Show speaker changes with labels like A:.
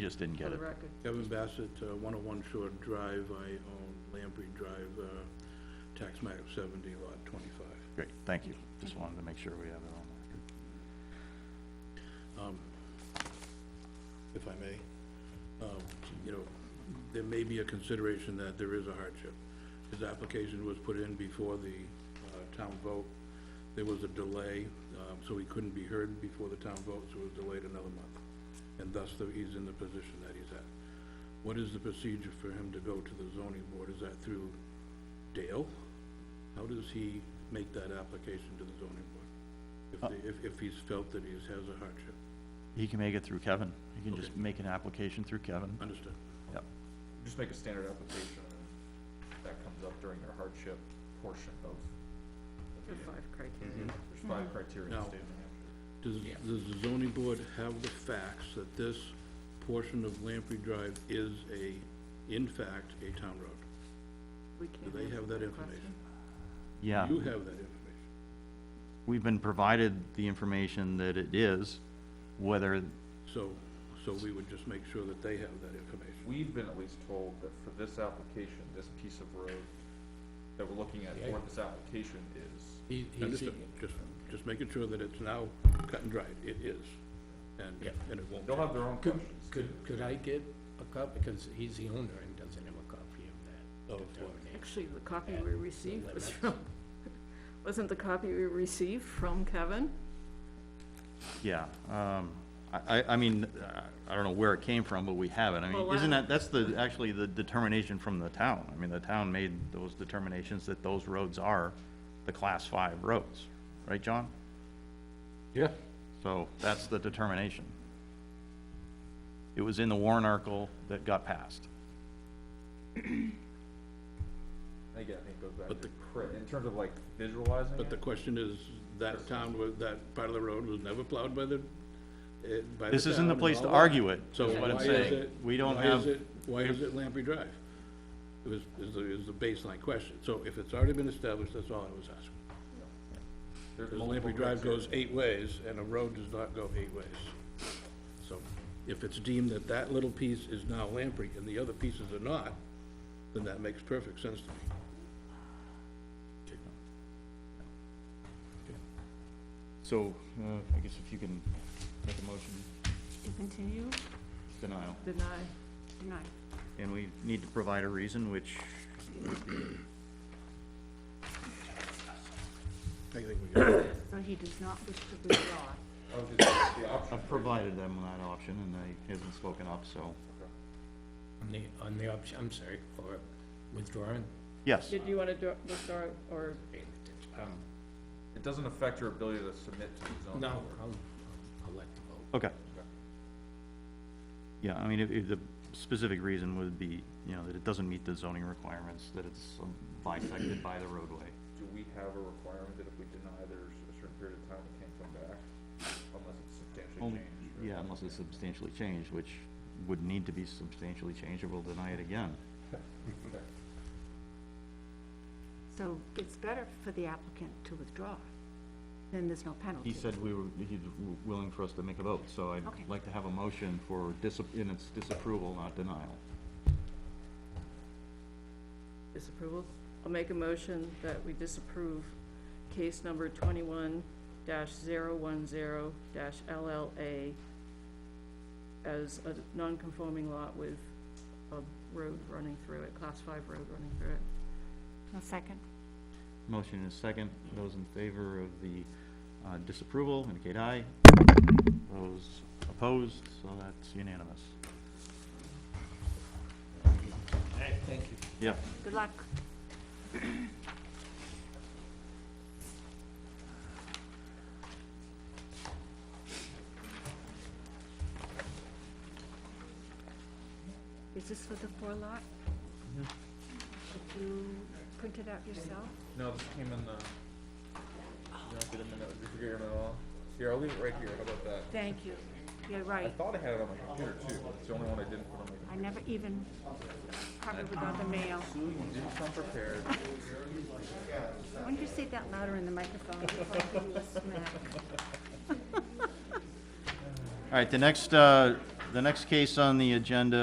A: Just didn't
B: for
A: get
B: the
A: it.
B: record.
C: Kevin Bassett, uh, 101 Shore Drive, I own Lamprey Drive, uh, tax map 70, lot 25.
A: Great, thank you. Just wanted to make sure we have it on record.
C: if I may. Um, You know, there may be a consideration that there is a hardship. His application was put in before the uh, town vote. There was a delay, um, so he couldn't be heard before the town vote, so it was delayed another month. And thus, the- he's in the position that he's at. What is the procedure for him to go to the zoning board? Is that through Dale? How does he make that application to the zoning board? If they- If, if he's felt that he has a hardship?
A: He can make it through Kevin. He can just make an application through Kevin.
C: Understood.
A: Yep.
D: Just make a standard application, and that comes up during the hardship portion of the
B: There
D: meeting.
B: are five criteria.
C: Mm-hmm.
D: There's five criteria in the
C: Now-
D: state of New Hampshire.
C: Does, does the zoning board have the facts that this portion of Lamprey Drive is a, in fact, a town road?
B: We can't
C: Do they have
B: answer
C: that information?
A: Yeah,
C: You have that information.
A: we've been provided the information that it is, whether,
C: So, so we would just make sure that they have that information.
D: We've been at least told that for this application, this piece of road that we're looking at for this application is,
E: He- he's
C: Understood,
E: seeking-
C: just, just making sure that it's now cut and dried, it is, and,
E: Yeah.
C: and it won't.
D: they'll have their own
E: Could,
D: questions.
E: could, could I get a copy, because he's the owner and doesn't have a copy of that
C: Of what?
E: determination.
B: Actually, the copy we received was
E: limits.
B: from, wasn't the copy we received from Kevin?
A: yeah. Um, I, I, I mean, uh, I don't know where it came from, but we have it. I mean,
B: Well,
A: isn't
B: I-
A: that, that's the, actually the determination from the town. I mean, the town made those determinations that those roads are the class five roads, right, John?
E: Yeah.
A: So that's the determination. It was in the Warren article that got passed.
D: Again, I think it goes back
C: But
D: to, cri- in terms of like visualizing
C: But the
D: it,
C: question is, that town, was that part of the road was never plowed by the, eh, by the
A: This isn't the
C: town and
A: place
C: all
A: to
C: that.
A: argue it,
C: So
A: is what I'm
C: why is
A: saying.
C: it-
A: We don't
C: why
A: have,
C: is it- Why is it Lamprey Drive? It was, is the, is the baseline question. So if it's already been established, that's all I was asking.
D: there's
C: Because
D: multiple
C: Lamprey Drive
D: criteria.
C: goes eight ways, and a road does not go eight ways. So if it's deemed that that little piece is now Lamprey and the other pieces are not, then that makes perfect sense to me.
A: so, uh, I guess if you can make a motion,
B: To continue?
A: denial.
B: Deny. Deny.
A: And we need to provide a reason, which,
C: I think we got it.
F: So he does not wish to withdraw.
D: I was just- the option
A: I've provided them that option, and they haven't spoken up, so.
E: On the, on the option, I'm sorry, for withdrawing.
A: Yes,
B: Did you want to withdraw or?
E: Um,
D: It doesn't affect your ability to submit to the zoning.
E: No,
D: board.
E: I'll, I'll let the vote.
A: okay. Yeah, I mean, if, if the specific reason would be, you know, that it doesn't meet the zoning requirements, that it's um, bisected by the roadway.
D: Do we have a requirement that if we deny, there's a certain period of time we can't come back unless it's substantially
A: Only-
D: changed? or-
A: Yeah, unless it's substantially changed, which would need to be substantially changed, or we'll deny it again.
F: So it's better for the applicant to withdraw, then there's no penalty.
A: He said we were, he's w- willing for us to make a vote, so I'd
F: Okay.
A: like to have a motion for dis, in its disapproval, not denial.
B: Disapproval? I'll make a motion that we disapprove case number twenty-one dash zero one zero dash LLA as a non-conforming lot with a road running through it, class five road running through it.
F: A second?
A: Motion is second. Those in favor of the uh, disapproval indicate aye. Those opposed, so that's unanimous. Thank you. Yeah.
F: Good luck. Is this for the four lot? Did you print it out yourself?
D: No, this came in the, you don't get a minute, did you forget your minute at all? Here, I'll leave it right here, how about that?
F: Thank you. You're
D: I
F: right.
D: thought I had it on my computer too, but it's the only one I didn't put on my
F: I
D: computer.
F: never even, probably without the mail.
D: Sue, you didn't come prepared.
F: Why don't you say that louder in the microphone before I give you a smack?
A: All right, the next uh, The next case on the agenda